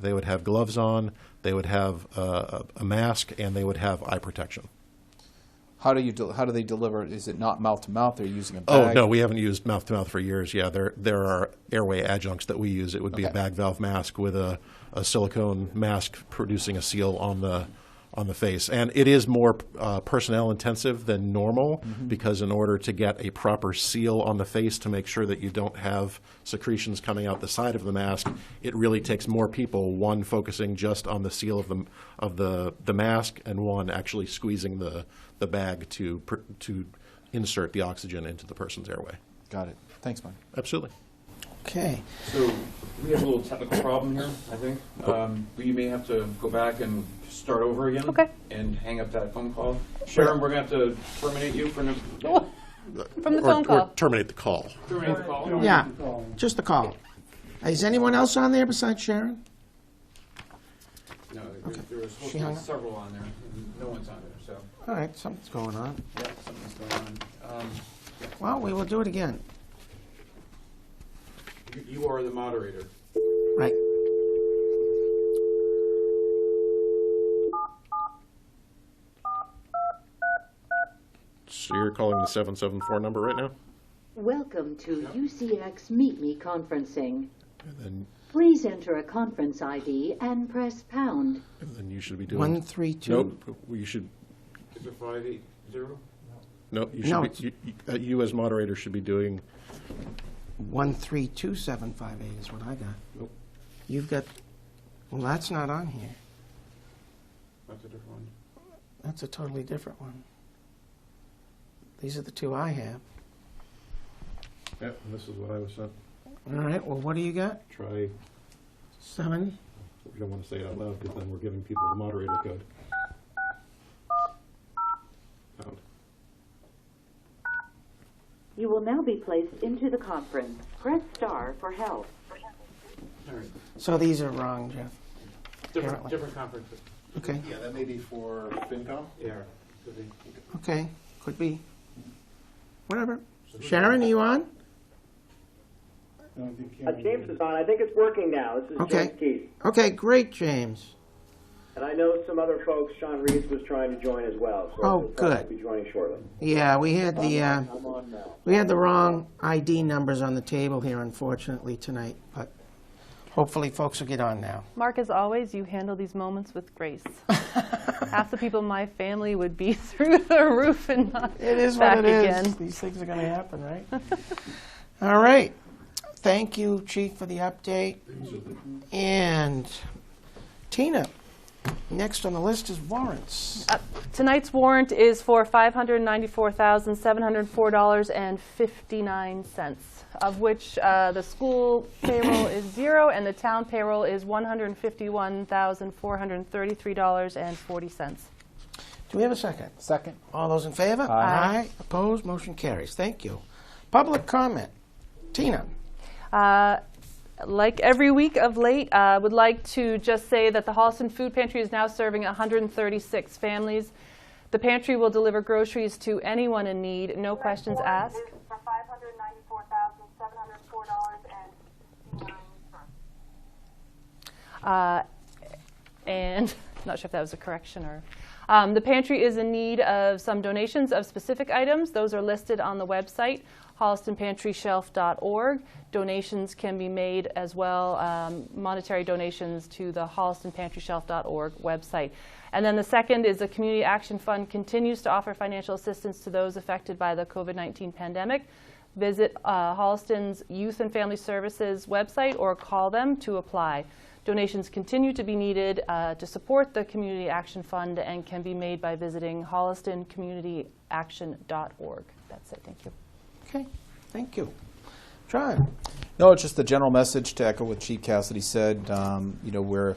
they would have gloves on, they would have uh, a a mask, and they would have eye protection. How do you, del- how do they deliver? it? Is it not mouth to mouth? They're using a bag? Oh, no, we haven't used mouth to mouth for years. Yeah, there, there are airway adjuncts that we use. It would be a Okay. bag valve mask with a, a silicone mask producing a seal on the, on the face. And it is more uh, personnel intensive than normal Mm-hmm. because in order to get a proper seal on the face to make sure that you don't have secretions coming out the side of the mask, it really takes more people, one focusing just on the seal of the, of the, the mask and one actually squeezing the, the bag to, pr- to insert the oxygen into the person's airway. Got it. Thanks, Mike. Absolutely. Okay. So we have a little technical problem here, I think. Um, We may have to go back and start over again. Okay. And hang up that phone call. Sharon, we're going to have to terminate you for no- From the or, phone or call. terminate the call. terminate the call. Yeah, just the call. Is anyone else on there besides Sharon? No, there- there was supposed She to hung be up. several on there. and No one's on there, so, All right, something's going on. yeah, something's going on. Um, Well, we will do it again. you- You are the moderator. Right. So you're calling the 774 number right now? Welcome to UCX Meet Me conferencing. And then, Please enter a conference ID and press pound. and then you should be doing. One, three, two. Nope. You should. Is it 580? No, you should No, be. You, you, uh, you as moderator should be doing. One, three, two, seven, five, eight is what I got. Nope. You've got, well, that's not on here. That's a different one. That's a totally different one. These are the two I have. Yep, and this is what I was sent. All right, well, what do you got? Try. Seven? We don't want to say it out loud because then we're giving people the moderator code. Pound. You will now be placed into the conference. Press star for help. All right. So these are wrong, Jeff. Different, Apparently. different conference. Okay, Yeah, that may be for FinCom. Yeah. could be. okay, could be. Whatever. Sharon, are you on? Uh, James is on. I think it's working now. This is Okay. James Keith. Okay, great, James. And I know some other folks, Sean Reeves was trying to join as well. So Oh, he'll probably good. Be joining shortly. Yeah, we had the, uh, I'm on now. we had the wrong ID numbers on the table here unfortunately tonight, but hopefully folks will get on now. Mark, as always, you handle these moments with grace. Half the people in my family would be through the roof and not It is back what it is. again. These things are going to happen, right? All right. Thank you, Chief, for the update. And Tina, next on the list is warrants. Uh, Tonight's warrant is for $594,704.59, of which uh, the school payroll is zero and the town payroll is $151,433.40. Do we have a second? Second. All those in favor? Aye. Opposed? Motion carries. Thank you. Public comment. Tina. Uh, like every week of late, I would like to just say that the Holliston Food Pantry is now serving 136 families. The pantry will deliver groceries to anyone in need, no questions asked. For five hundred ninety-four thousand, seven hundred four dollars and sixty-nine cents. Uh, and not sure if that was a correction or. Um, the pantry is in need of some donations of specific items. Those are listed on the website, hollistonpantryshelf.org. Donations can be made as well, um, monetary donations to the hollistonpantryshelf.org website. And then the second is the Community Action Fund continues to offer financial assistance to those affected by the COVID 19 pandemic. Visit uh, Holliston's Youth and Family Services website or call them to apply. Donations continue to be needed uh, to support the Community Action Fund and can be made by visiting hollistoncommunityaction.org. That's it, thank you. Okay. Thank you. John. No, it's just the general message to echo what Chief Cassidy said. Um, you know, we're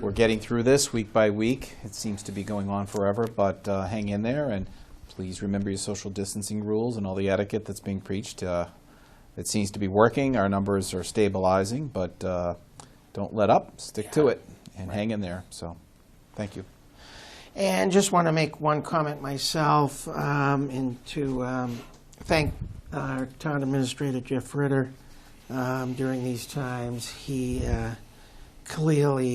we're getting through this week by week. It seems to be going on forever, but uh, hang in there and please remember your social distancing rules and all the etiquette that's being preached. Uh, it seems to be working. Our numbers are stabilizing, but uh, don't let up. Stick to it and hang in there. So, thank you. And just want to make one comment myself um, and to um, thank our town administrator, Jeff Ritter, um, during these times. He uh, clearly